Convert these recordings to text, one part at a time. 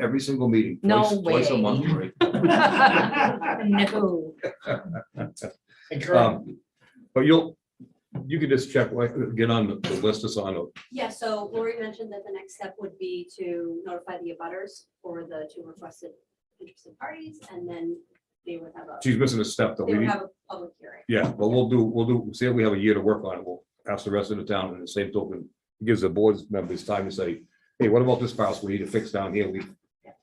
every single meeting. No twice- Twice a way. month, right? No. Um, But you'll, you can just check, like, get on the the list that's on, it. Yeah, so Lori mentioned that the next step would be to notify the abutters or the two requested interested parties, and then they would have a, she's missing a step that they we would need. have a public hearing. Yeah, but we'll do, we'll do, see if we have a year to work on it. We'll ask the rest of the town and the same token. it Gives the board members time to say, hey, what about this house? We need to fix down here. We,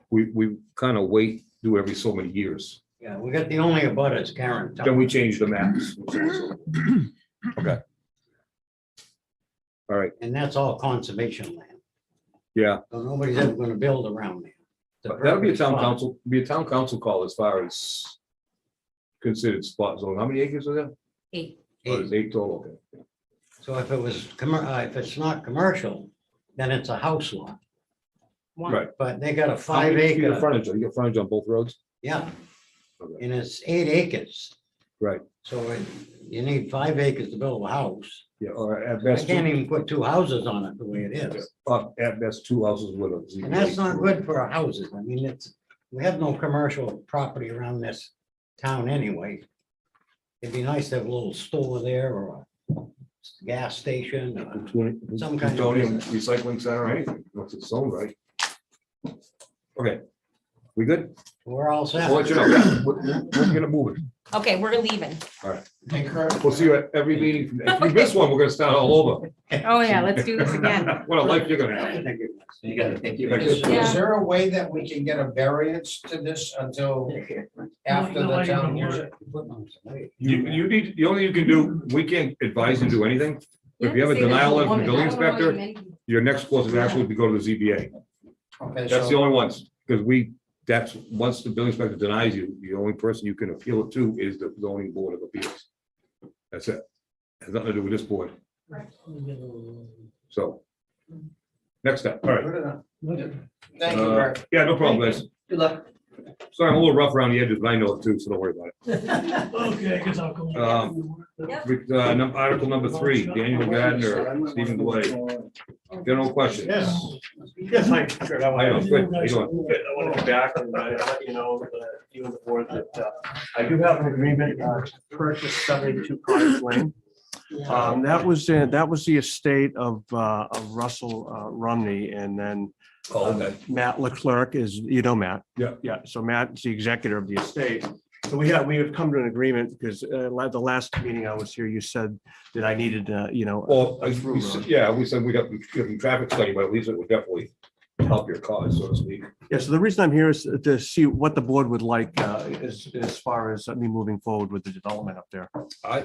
we, we kind of wait, do every so many years. Yeah, we got the only abutters, Karen. Then we change the maps. Okay. All right, And that's all conservation land. yeah, So nobody's ever gonna build around there. It's a that'll be a town perfect spot. council, be a town council call as far as considered spot zone. How many acres are there? Eight. Oh, it's Eight total, okay. So if it was, commer- uh, if it's not commercial, then it's a house lot, One. Right. but they got a How many five feet of acre, Frontage, you got frontage on both roads? yeah, Okay. and it's eight acres. Right. So it- you need five acres to build a house. Yeah, or at I best, can't two- even put two houses on it the way it is. uh, at best, two houses with a. And that's not good for our houses. I mean, it's, we have no commercial property around this town anyway. It'd be nice to have a little store there or a gas station. or- Some kind of Plutonium recycling center, or anything, once it's sold, right? Okay, we good? We're all set. I'll let you know, Yeah, we're, we're gonna move it, Okay, we're leaving. we'll see you at every meeting, from- if you miss one, we're gonna start all over. Oh, yeah, let's do this again. What a life you're gonna have. Thank you. You gotta think. you- Thank Is, you. is there a way that we can get a variance to this until after the town hears it? You, you need, the only you can do, we can't advise you to do anything, if you have a denial letter from the building inspector, your next course of action would be go to the ZBA. Okay, That's the so, only ones, because we, that's, once the building inspector denies you, the only person you can appeal it to is the zoning board of appeals. That's it. Has nothing to do with this board. So. Next step, all right. good enough. Thank you, Uh, Bert. Yeah, no problem, guys. Good luck. Sorry, I'm a little rough around the edges, but I know it too, so don't worry about Okay, because I'll it. Um, with, uh, num- Article number three, Daniel Gardner, Stephen Blay, general question. Yes. Yes, I, sure. I I know, want good, how you doing? to go back and uh, let you know, uh, you and the board, that uh, I do have an agreement uh, to purchase seventy-two Cottage Lane. Um, That was, in- that was the estate of uh, of Russell uh, Rumney, and then Oh, okay. Matt Leclerc is, you know Matt? Yeah. Yeah, so Matt's the executor of the estate. So we have, we have come to an agreement, because uh, la- the last meeting I was here, you said that I needed, uh, you know. Well, a I- through we s- road. yeah, we said we got, we got a traffic study, but at least it would definitely help your cause, so to speak. Yeah, so the reason I'm here is to see what the board would like uh, as, as far as uh, me moving forward with the development up there. Uh, I.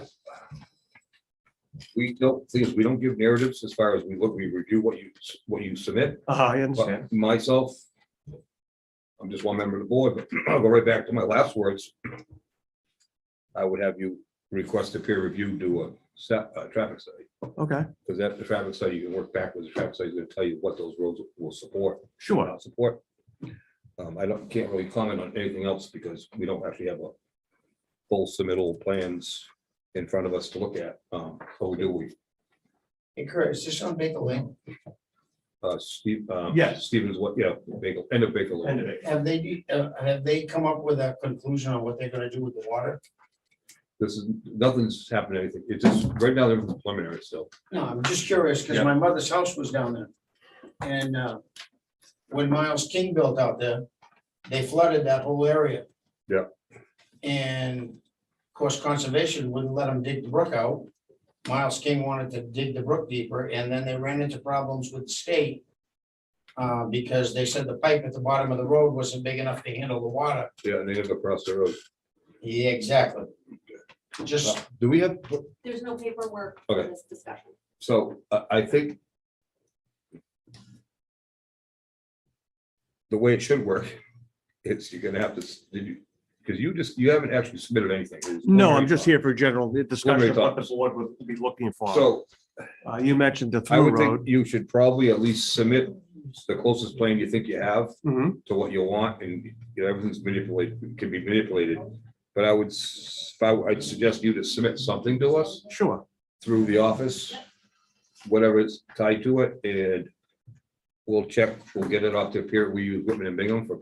We don't, please, we don't give narratives as far as we look, we review what you, what you submit, Uh, I understand. but myself. I'm just one member of the board, but I'll go right back to my last words. I would have you request a peer review, do a set, a traffic study, Okay, because that, the traffic study, you can work backwards, the traffic study is gonna tell you what those roads will support. sure. without support. Um, I don't, can't really comment on anything else because we don't actually have a full submittal plans in front of us to look at. Um, so do we, Hey, Kurt, is this on Baker Lane? uh, Steve, um, Yes. Stevens, what, yeah, Baker, end of Baker Lane. End of it. Have they, uh, have they come up with a conclusion on what they're gonna do with the water? This is, nothing's happened, anything. It's just, right now, they're preliminary still. No, I'm just curious, because Yeah. my mother's house was down there. And, uh, when Miles King built out there, they flooded that whole area. Yeah. And of course, conservation wouldn't let them dig the brook out. Miles King wanted to dig the brook deeper, and then they ran into problems with the state. Uh, because they said the pipe at the bottom of the road wasn't big enough to handle the water. Yeah, and they have across the road. Yeah, exactly. Just Uh, Do we have, There's no paperwork for Okay. this discussion. so I, I think the way it should work, it's, you're gonna have to, s- did you, because you just, you haven't actually submitted anything. It's No, I'm preliminary just thought. here for general discussion of what the thoughts. board would be looking for. So Uh, You mentioned the I through would think road. you should probably at least submit the closest plan you think you have Mhm. to what you want and you know, everything's manipulated, can be manipulated. But I would, s- if I, I'd suggest you to submit something to us Sure. through the office, whatever is tied to it and We'll check, we'll get it off to Pier, we use Whitman and Bingham for